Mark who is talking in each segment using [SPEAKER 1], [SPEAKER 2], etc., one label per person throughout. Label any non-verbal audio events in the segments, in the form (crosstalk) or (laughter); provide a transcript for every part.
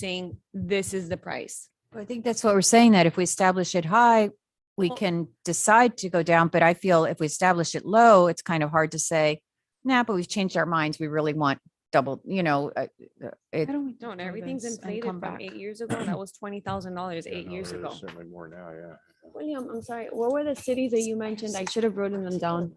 [SPEAKER 1] saying this is the price.
[SPEAKER 2] I think that's what we're saying, that if we establish it high, we
[SPEAKER 1] Well-
[SPEAKER 2] can decide to go down, but I feel if we establish it low, it's kind of hard to say, nah, but we've changed our minds. We really want double, you know, uh, uh, it,
[SPEAKER 1] Don't, everything's inflated
[SPEAKER 2] come
[SPEAKER 1] from
[SPEAKER 2] back.
[SPEAKER 1] eight years ago. That was twenty thousand dollars eight years ago.
[SPEAKER 3] Certainly more now, yeah.
[SPEAKER 1] William, I'm sorry, what were the cities that you mentioned? I should have written them down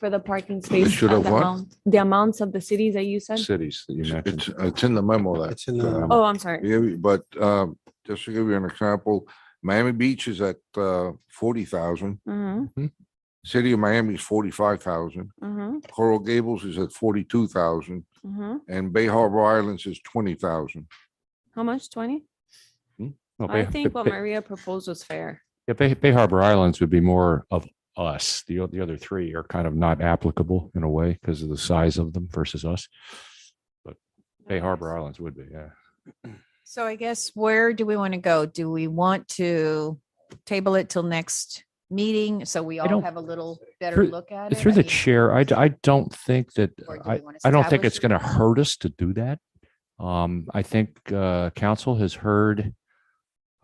[SPEAKER 1] for the parking space.
[SPEAKER 3] should
[SPEAKER 1] uh,
[SPEAKER 3] have
[SPEAKER 1] the
[SPEAKER 3] what?
[SPEAKER 1] amount- The amounts of the cities that you said?
[SPEAKER 3] Cities that you mentioned. It's, it's in the memo that.
[SPEAKER 4] It's in the-
[SPEAKER 3] um,
[SPEAKER 1] Oh, I'm sorry.
[SPEAKER 3] yeah, but, um, just to give you an example, Miami Beach is at, uh, forty thousand.
[SPEAKER 1] Mm-hmm,
[SPEAKER 3] City of Miami is forty-five thousand.
[SPEAKER 1] mm-hmm,
[SPEAKER 3] Coral Gables is at forty-two thousand
[SPEAKER 1] mm-hmm.
[SPEAKER 3] and Bay Harbor Islands is twenty thousand.
[SPEAKER 1] How much? Twenty?
[SPEAKER 5] Well,
[SPEAKER 1] I
[SPEAKER 5] Bay-
[SPEAKER 1] think
[SPEAKER 5] Bay-
[SPEAKER 1] what
[SPEAKER 5] Bay-
[SPEAKER 1] Maria proposed was fair.
[SPEAKER 5] yeah, Bay, Bay Harbor Islands would be more of us. The, o- the other three are kind of not applicable in a way because of the size of them versus us. But Bay Harbor Islands would be, yeah.
[SPEAKER 2] so I guess where do we want to go? Do we want to table it till next meeting? So we all
[SPEAKER 5] don't-
[SPEAKER 2] have a little better
[SPEAKER 5] through-
[SPEAKER 2] look at it?
[SPEAKER 5] Through
[SPEAKER 2] I
[SPEAKER 5] the
[SPEAKER 2] mean,
[SPEAKER 5] chair, I, d- I don't think that,
[SPEAKER 2] or do we
[SPEAKER 5] I,
[SPEAKER 2] wanna
[SPEAKER 5] I don't think
[SPEAKER 2] establish
[SPEAKER 5] it's
[SPEAKER 2] it?
[SPEAKER 5] going to hurt us to do that. Um, I think, uh, council has heard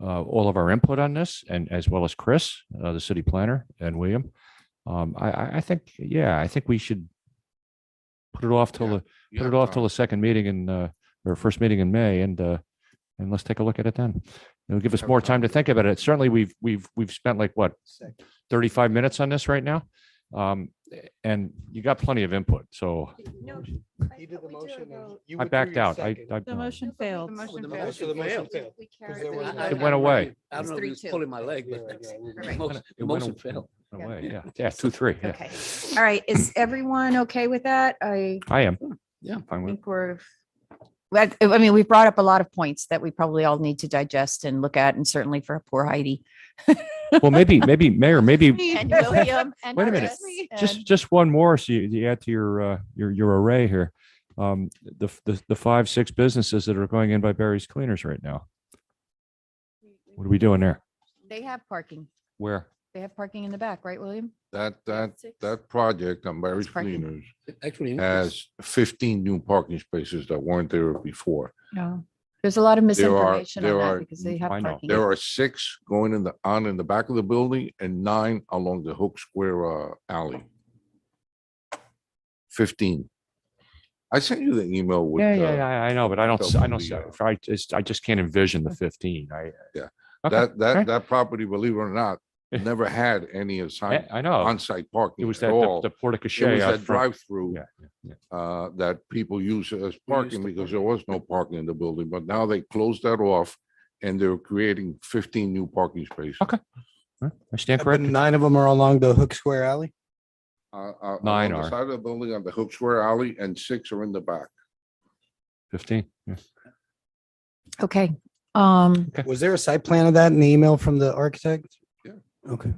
[SPEAKER 5] uh, all of our input on this and as well as Chris, uh, the city planner and William. Um, I, I, I think, yeah, I think we should put it off till
[SPEAKER 3] Yeah.
[SPEAKER 5] the, put it off till the second meeting in, uh, or first meeting in May and, uh, and let's take a look at it then. It'll give us
[SPEAKER 3] Have
[SPEAKER 5] more time
[SPEAKER 3] time.
[SPEAKER 5] to think about it. Certainly, we've, we've, we've spent like what? Thirty-five minutes on this right now. Um, and you got plenty of input, so
[SPEAKER 4] He did the motion. and you
[SPEAKER 5] I
[SPEAKER 4] withdrew
[SPEAKER 5] backed
[SPEAKER 4] your
[SPEAKER 5] out. I,
[SPEAKER 4] second.
[SPEAKER 5] I.
[SPEAKER 6] The motion failed.
[SPEAKER 4] So Oh, the motion failed.
[SPEAKER 5] It went away.
[SPEAKER 7] I don't know if he was pulling my leg,
[SPEAKER 4] Yeah, yeah, we-
[SPEAKER 7] but
[SPEAKER 2] Right.
[SPEAKER 7] most,
[SPEAKER 5] It went
[SPEAKER 7] most
[SPEAKER 5] aw-
[SPEAKER 7] fell.
[SPEAKER 5] went away, Yeah, yeah, two, three. yeah.
[SPEAKER 2] Okay, all right, is everyone okay with that? I
[SPEAKER 5] I am.
[SPEAKER 7] Yeah.
[SPEAKER 5] Fine with,
[SPEAKER 2] think we're, but, I mean, we brought up a lot of points that we probably all need to digest and look at, and certainly for poor Heidi.
[SPEAKER 5] it. well, maybe, maybe, Mayor, maybe
[SPEAKER 6] And
[SPEAKER 2] (laughs)
[SPEAKER 6] William and
[SPEAKER 5] Wait a minute.
[SPEAKER 6] Chris
[SPEAKER 5] just,
[SPEAKER 6] and-
[SPEAKER 5] just one more. So you, you add to your, uh, your, your array here. Um, the, f- the, the five, six businesses that are going in by Barry's Cleaners right now. What are we doing there?
[SPEAKER 2] They have parking.
[SPEAKER 5] Where?
[SPEAKER 2] They have parking in the back, right, William?
[SPEAKER 3] That, that, that project on Barry's
[SPEAKER 2] parking.
[SPEAKER 3] Cleaners
[SPEAKER 7] Actually,
[SPEAKER 3] has fifteen new parking spaces that weren't there before.
[SPEAKER 2] No. There's a lot of
[SPEAKER 3] There are-
[SPEAKER 2] misinformation on
[SPEAKER 3] there
[SPEAKER 2] that
[SPEAKER 3] are-
[SPEAKER 2] because they have
[SPEAKER 5] I know.
[SPEAKER 2] parking.
[SPEAKER 3] There are six going in the, on in the back of the building and nine along the Hook Square uh, alley. Fifteen. I sent you the email with.
[SPEAKER 5] Yeah, yeah,
[SPEAKER 3] uh,
[SPEAKER 5] yeah, I I know, but I don't, s- I don't,
[SPEAKER 3] Sophia.
[SPEAKER 5] s- I just, I just can't envision the fifteen. I.
[SPEAKER 3] Yeah,
[SPEAKER 5] Okay,
[SPEAKER 3] That,
[SPEAKER 5] okay.
[SPEAKER 3] that, that property, believe it or not,
[SPEAKER 5] Yeah.
[SPEAKER 3] never had any assign,
[SPEAKER 5] Eh, I I know.
[SPEAKER 3] on-site parking
[SPEAKER 5] It was
[SPEAKER 3] at
[SPEAKER 5] that, the-
[SPEAKER 3] all.
[SPEAKER 5] the
[SPEAKER 3] It
[SPEAKER 5] porta
[SPEAKER 3] was
[SPEAKER 5] cachet. out
[SPEAKER 3] that
[SPEAKER 5] front.
[SPEAKER 3] drive-through
[SPEAKER 5] Yeah, yeah, yeah.
[SPEAKER 3] uh, that people use as parking
[SPEAKER 7] to
[SPEAKER 3] because there was no parking in the building, but now they closed that off and they're creating fifteen new parking spaces.
[SPEAKER 5] Okay. Huh? I stand
[SPEAKER 4] But
[SPEAKER 5] corrected.
[SPEAKER 4] Nine of them are along the Hook Square Alley.
[SPEAKER 3] Uh, uh,
[SPEAKER 5] Nine
[SPEAKER 3] On the
[SPEAKER 5] are.
[SPEAKER 3] side of the building on the Hook Square alley and six are in the back.
[SPEAKER 5] Fifteen. yeah.
[SPEAKER 2] Okay, um,
[SPEAKER 4] Was there a site plan of that in the email from the architect?
[SPEAKER 3] Yeah.
[SPEAKER 4] Okay,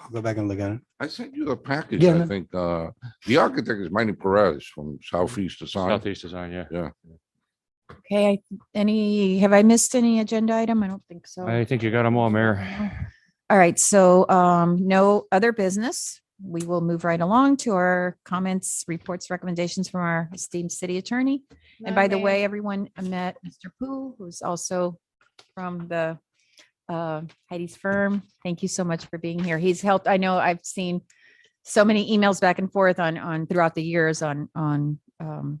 [SPEAKER 4] I'll go back and look at it.
[SPEAKER 3] I sent you the package,
[SPEAKER 4] Yeah,
[SPEAKER 3] I
[SPEAKER 4] no.
[SPEAKER 3] think. uh, The architect is Manny Perez from Southeast Design.
[SPEAKER 5] Southeast design, yeah.
[SPEAKER 2] okay, I- any, have I missed any agenda item? I don't think
[SPEAKER 1] Oh.
[SPEAKER 2] so.
[SPEAKER 5] I think you got them all, Mayor.
[SPEAKER 2] All right, so um, no other business. We will move right along to our comments, reports, recommendations from our esteemed city attorney. And by the way, everyone I met Mr. Pooh, who's also from the uh, Heidi's firm. Thank you so much for being here. He's helped. I know I've seen so many emails back and forth on on throughout the years on on um,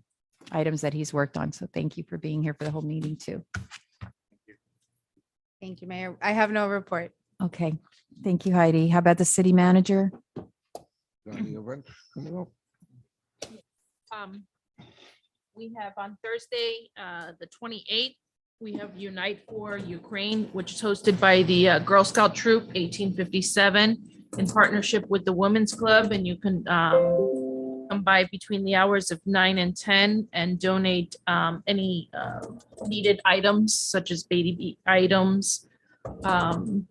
[SPEAKER 2] items that he's worked on. So thank you for being here for the whole meeting too.
[SPEAKER 6] Thank you, Mayor. I have no report.
[SPEAKER 2] Okay, thank you, Heidi. How about the city manager?
[SPEAKER 3] Got any events coming up?
[SPEAKER 8] um, we have on Thursday, uh, the twenty-eighth, we have Unite for Ukraine, which is hosted by the uh, Girl Scout Troop eighteen fifty-seven in partnership with the Women's Club, and you can, um, come by between the hours of nine and ten and donate, um, any, uh, needed items such as baby items, um,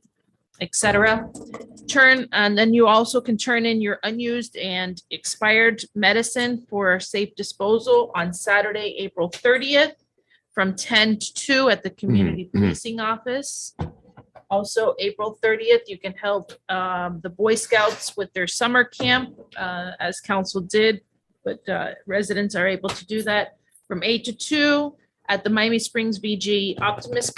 [SPEAKER 8] et cetera turn, and then you also can turn in your unused and expired medicine for safe disposal on Saturday, April thirtieth from ten to two at the Community
[SPEAKER 5] mhm.
[SPEAKER 8] Policing Office. Also, April thirtieth, you can help um, the Boy Scouts with their summer camp, uh, as council did. But uh, residents are able to do that from eight to two at at the Miami Springs BG Optimist